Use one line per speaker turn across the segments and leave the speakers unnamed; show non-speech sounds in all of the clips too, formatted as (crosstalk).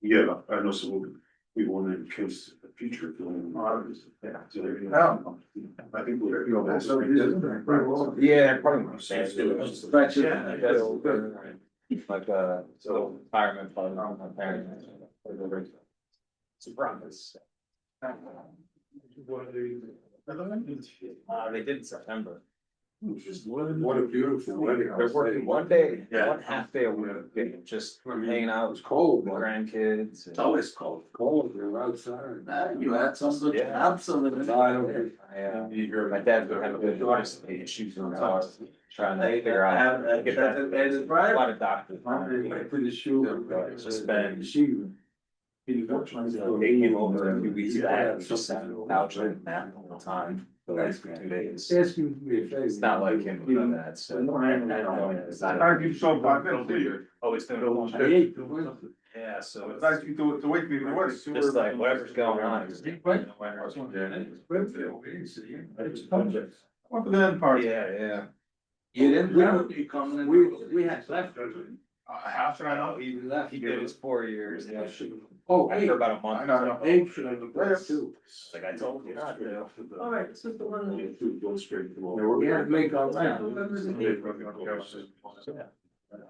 yeah, I know, so we, we want to case the future of doing models.
No.
I think we're.
You know, that's-
Yeah, pretty much.
That's good.
That's it.
Yeah,
That's
that's
good.
good.
Like, uh, so
So-
retirement fund, not my parents. It's a promise. Uh, they did in September.
What a beautiful wedding.
They're working one day,
Yeah.
one half day a week, they just
I mean,
hanging
It
out
was
with
cold,
the
but
grandkids.
it's always cold, cold, you're outside.
You had some good,
Yeah.
absolutely.
No, I don't think-
I, uh,
You hear
my
about
dad would have a bit of issues in the house, trying to figure out.
Have, uh, get that, that is
A
right.
lot of doctors.
I put the shoe.
Yeah, just been-
Shoe.
So They came over a few weeks back, and just sat on the couch and napped all the time, the last few days.
Ask you to be a favor.
It's not like him, you know that, so. Thank
you so much, Bill.
Oh, it's
I hate the weather.
Yeah, so it's
Thank you to, to wake me from work.
just like whatever's going on. it's-
Right.
Yeah,
What for the end part?
yeah.
You didn't, we don't, you come.
We, we had left.
Uh, how should I know?
He left.
He did his four years, yeah,
Oh, hey,
after about a month.
I don't know.
they should have looked at too.
Like I told you not to.
Alright, this is the one. Go straight to the wall. We had to make our
Yeah.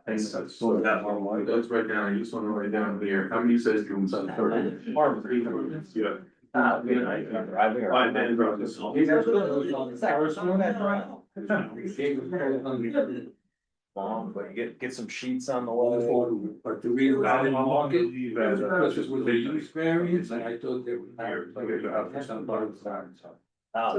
And so- so that one, like,
Let's write down, I just wanna write down here, how many says you inside the third?
farm free.
Yeah.
Ah, we don't know, driving or-
Fine, then drop this off.
He's absolutely-
Long, but you get, get some sheets on the
All the
wall.
photo, but the real.
I didn't walk it.
That's because it was a use variance, and I thought they were hired, like, uh, for some part of the time, so.
Oh,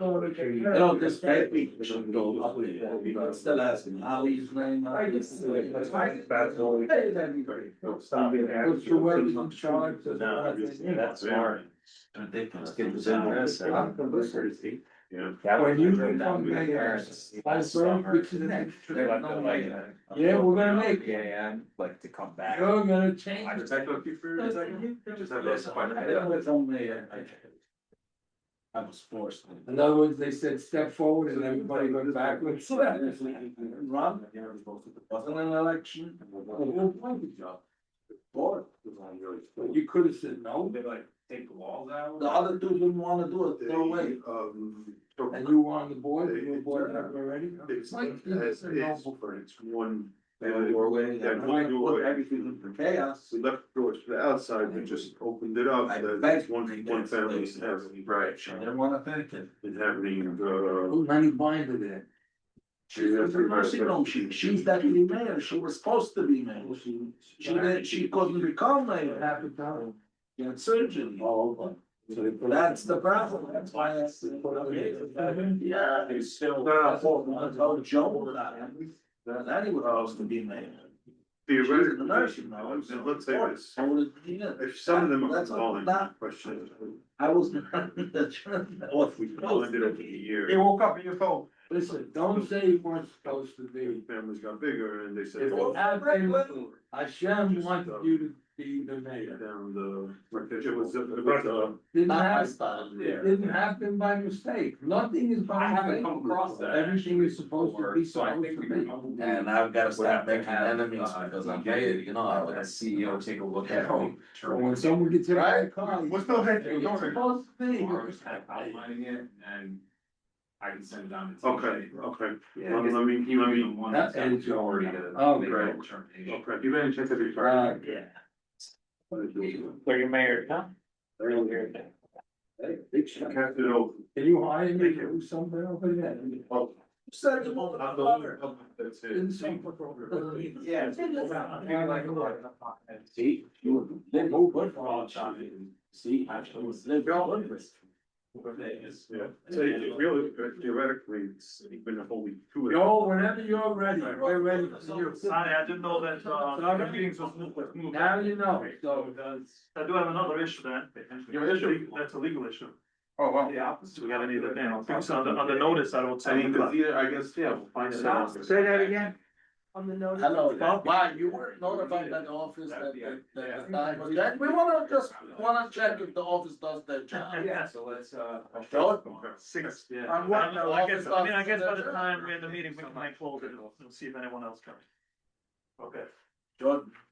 No, this bad week, we
should
shouldn't
go
go
up
up
with it.
But still asking, how he's playing.
I just-
That's fine.
That's all.
Hey, that'd be great.
Stop it. Put your weapons on charge. that's
No,
what I
that's-
think.
that's smart.
Ridiculous.
Get this in there, so-
I'm from this city.
That
When
was-
you
I drove
come
down with
back,
parents
I
last
saw
summer.
which is the next.
They like to like-
Yeah, we're gonna make it.
Yeah, yeah, I'd like to come back.
You're
I
gonna change.
just-
Just
I
have
was
this one.
only, uh, I I was forced.
In other words, they said step forward and everybody went
(laughs)
backwards.
Run. Wasn't an election. Board.
You could have said no.
They like take the walls out.
The other two didn't wanna do it, throw away.
Um.
And you were on the board, you were board member already?
It's
Mike,
like,
you
it's,
said no.
it's, it's one.
They were doorway.
Yeah,
and
one
I
doorway.
put Everything in the chaos.
We left the doors to the outside, we just opened it up,
I
the-
bet they
one, one
got
family
slaves.
has,
I
right,
didn't wanna think it.
is having, uh.
Who Lenny Binder there?
She's a mercy, no, she, she's deputy mayor, she was supposed to be mayor.
She,
She didn't, she couldn't become mayor,
Half a town.
she had surgery.
Oh, okay. So they put-
That's the problem, that's why I said.
Put up here.
Yeah.
They still.
I told Joe that, that anyway, I was to be mayor. She's a
Theoretically,
nurse, you know, so-
and let's say this,
I would, yeah,
if some of them are
That's all
calling
that-
questions,
I was. (laughs) What we.
we blended over the years.
woke up in your phone.
Listen, don't say you weren't supposed to
the
be.
families got bigger and they said.
If
well,
it had been, Hashem wanted you to be the mayor.
Down the, it was, it was, uh.
Didn't
Not my
happen,
style.
it didn't happen by mistake. Nothing is by mistake. Everything is supposed to be
So I
supposed
think we
to
can.
And I've gotta
Would have
stop
to
making
have,
enemies
uh,
because
you
I'm
get-
hated, you know, I would.
Let a (laughs)
E
CEO take a look
Yeah.
at it.
be. And
(laughs)
When someone gets hit by a car.
We're still here, we're
It's
doing it.
supposed to be.
Or
(laughs)
just kind of outlining it and I can send it down. to
Okay,
TJ.
okay,
Yeah,
let me, let me, let me,
One
That
step
is already
to
done. Oh,
make a
great.
determination.
okay, you better check every
Right.
car.
Yeah.
Where your mayor, huh?
Cast it over.
Can you hire me to do something over there?
Oh,
Send them over
not
the
the
water.
whole- That's it.
Didn't say for program.
Yeah.
See, you live over for all time. See, actually, it's live over.
Yeah, so it really, theoretically, it's been a whole week. two of
Yo, whenever you're ready, we're ready for you.
Sorry, I didn't know that, uh,
Sorry.
the meetings was moved, was moved.
Now you know, so.
I do have another issue then.
Your issue?
That's a legal issue.
Oh, wow.
Yeah. We got any of the, on the, on the notice, I
I
will tell
mean,
you.
cause either, I guess, yeah, we'll find it out.
again.
On the notice.
Hello, wow, you were notified by the office that, that, that the time was that, we wanna just, wanna check if the office does their job.
Yeah, so let's, uh.
Six, yeah.
On
I
what
don't know,
the
I guess,
office
I mean, I
does
guess by
their
the
job.
time we're in the meeting, we can like close it, we'll see if anyone else comes. Okay.
Jordan,